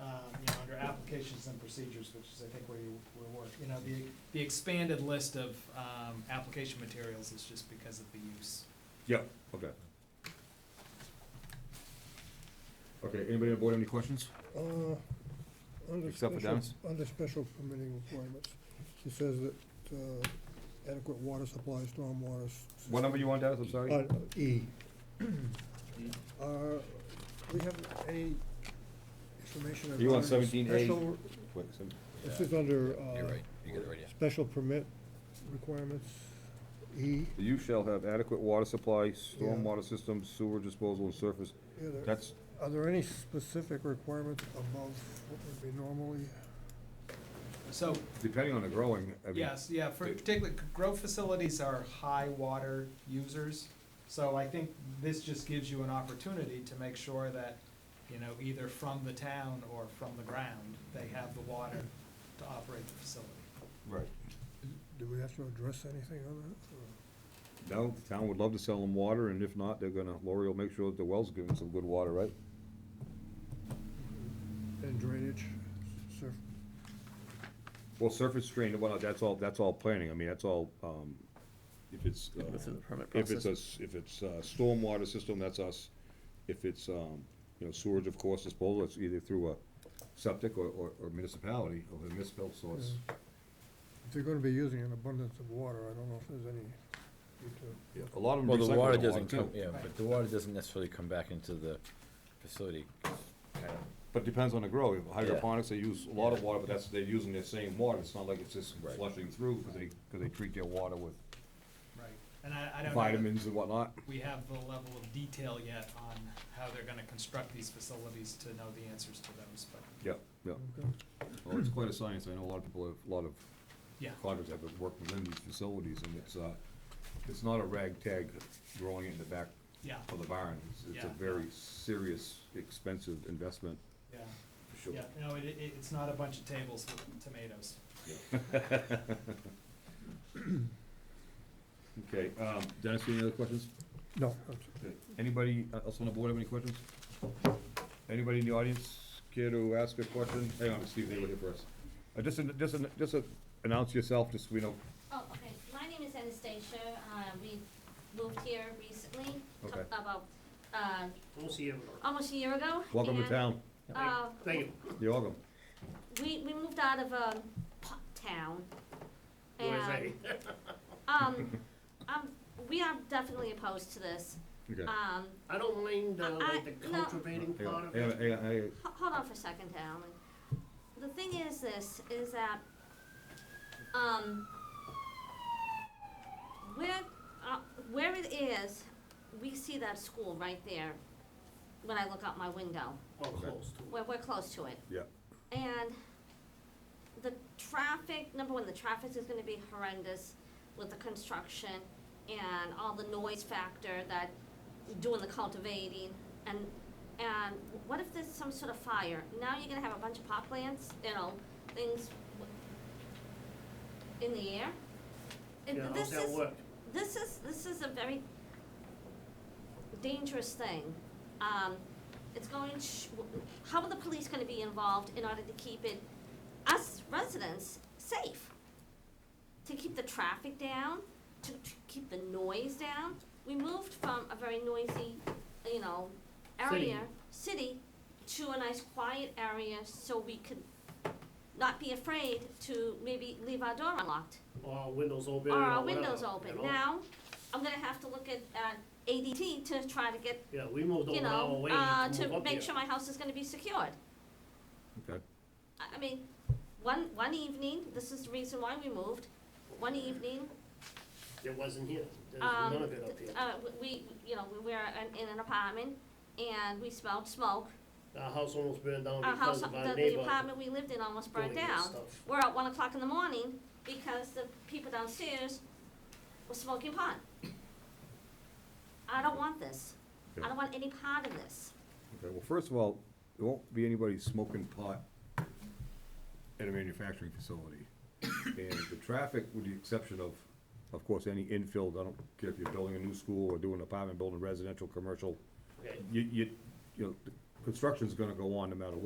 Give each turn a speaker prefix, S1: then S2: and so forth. S1: um, applications and procedures, which is, I think, where you, where work, you know, the, the expanded list of, um, application materials is just because of the use.
S2: Yeah, okay. Okay, anybody on board have any questions?
S3: Uh, under
S2: Except for
S3: special-
S2: Dennis?
S3: Under special permitting requirements, she says that uh, adequate water supply, stormwater. s-
S2: What number you want, Dennis, I'm
S3: Uh,
S2: sorry?
S3: E. Uh, we have any information about?
S2: You want 17A?
S3: special-
S2: Wait, so-
S3: This is under,
S4: You're
S3: uh,
S4: right, you got it right, yeah.
S3: special permit requirements, E.
S2: You shall have adequate water supply, stormwater system, sewer disposal, and surface.
S3: Yeah, there-
S2: That's,
S3: Are there any specific requirements above what would be normally?
S1: So,
S2: depending on the growing, I mean.
S1: Yes, yeah, for
S2: the-
S1: particularly, grow facilities are high water users, so I think this just gives you an opportunity to make sure that, you know, either from the town or from the ground, they have the water to operate the facility.
S2: Right.
S3: Do we have to address anything on that? or-
S2: No, the town would love to sell them water, and if not, they're gonna, Lori will make sure that the well's giving some good water, right?
S3: And drainage, surf,
S2: Well, surface drain, well, that's all, that's all planning, I mean, that's all, um, if it's, uh,
S5: Go through the permit
S2: if it's
S5: process.
S2: a, s- if it's a stormwater system, that's us. If it's, um, you know, sewage, of course, disposal, it's either through a septic or, or or municipality, or the municipal source.
S3: If they're gonna be using an abundance of water, I don't know if there's any need to,
S2: Yeah, A lot of them
S4: Well,
S2: recycle
S4: the
S2: their
S4: water doesn't
S2: too.
S4: come, yeah,
S1: Right.
S4: but the water doesn't necessarily come back into the facility.
S2: But it depends on the grow. Hydroponics, they use a lot of water, but that's, they're using the same water. It's not like it's just
S4: Right.
S2: flushing through, because they, because they treat their water with
S1: Right, and I, I don't know, that
S2: vitamins and whatnot.
S1: we have the level of detail yet on how they're gonna construct these facilities to know the answers to those, but,
S2: Yeah, yeah.
S1: Mm.
S2: Well, it's quite a science. I know a lot of people have, a lot of
S1: yeah.
S2: Cloggers have worked within these facilities, and it's, uh, it's not a ragtag growing it in the back
S1: Yeah,
S2: of the barn. It's- It's a
S1: Yeah.
S2: very serious, expensive investment,
S1: yeah,
S2: for
S1: yeah,
S2: sure.
S1: no, it, it, it's not a bunch of tables with tomatoes.
S2: Okay, um, Dennis, any other questions?
S3: no, that's-
S2: Okay. Anybody else on the board have any questions? Anybody in the audience care to ask a question? Hang on, Steve, they were here first. Uh, Just, an- just, an- just uh, announce yourself, just so we know.
S6: Oh, okay. My name is Anastasia. Uh, we moved here recently, cou-
S2: Okay.
S6: about, uh,
S7: We'll see you.
S6: almost a year ago.
S2: Welcome to
S6: and,
S2: town.
S6: Uh,
S7: Thank you.
S2: You're welcome.
S6: we, we moved out of, um, Pot Town.
S7: USA.
S6: And, um, um, we are definitely opposed to this.
S2: Okay.
S6: Um,
S7: I don't mind, uh, like, the
S6: I- no.
S7: cultivating
S2: Hang
S7: part
S2: on,
S7: of
S2: hang on,
S7: it.
S2: hang on, hang on.
S6: Ho- Hold on for a second, Alan. The thing is this, is that, um, where, uh, where it is, we see that school right there when I look out my window.
S7: Oh, close to it.
S6: We're, we're close to it.
S2: Yeah.
S6: And the traffic, number one, the traffic is gonna be horrendous with the construction and all the noise factor that doing the cultivating and, and what if there's some sort of fire? Now you're gonna have a bunch of pot plants, you know, things w- in the air. And
S7: Yeah, how's
S6: this
S7: that
S6: is-
S7: work?
S6: this is, this is a very dangerous thing. Um, it's going, sh- how are the police gonna be involved in order to keep it, us residents, safe? To keep the traffic down, to, to keep the noise down? We moved from a very noisy, you know, area, city, to a nice quiet area so we could not be afraid to maybe leave our door unlocked
S7: Or windows open or
S6: or
S7: whatever.
S6: our windows
S7: you
S6: open.
S7: know?
S6: Now, I'm gonna have to look at, at ADT to try to get,
S7: Yeah, we moved
S6: you
S7: over our
S6: know,
S7: way
S6: uh,
S7: to move
S6: to
S7: up
S6: make
S7: here.
S6: sure my house is gonna be secured.
S2: Okay.
S6: I, I mean, one, one evening, this is the reason why we moved, one evening,
S7: It wasn't here. There's
S6: um,
S7: none of it up
S6: th-
S7: here.
S6: uh, w- we, you know, we were in- in an apartment and we smelled smoke.
S7: Our house almost burned down
S6: uh, Our house,
S7: because
S6: the,
S7: of our
S6: the
S7: neighbor
S6: apartment we lived in almost
S7: doing
S6: burned
S7: this
S6: down.
S7: stuff.
S6: We're at one o'clock in the morning because the people downstairs were smoking pot. I don't want this. I don't want any part of this.
S2: Okay, well, first of all, there won't be anybody smoking pot at a manufacturing facility. And the traffic, with the exception of, of course, any infill, I don't care if you're building a new school or doing an apartment, building residential, commercial,
S7: Okay.
S2: you, you, you know, the construction's gonna go on no matter what.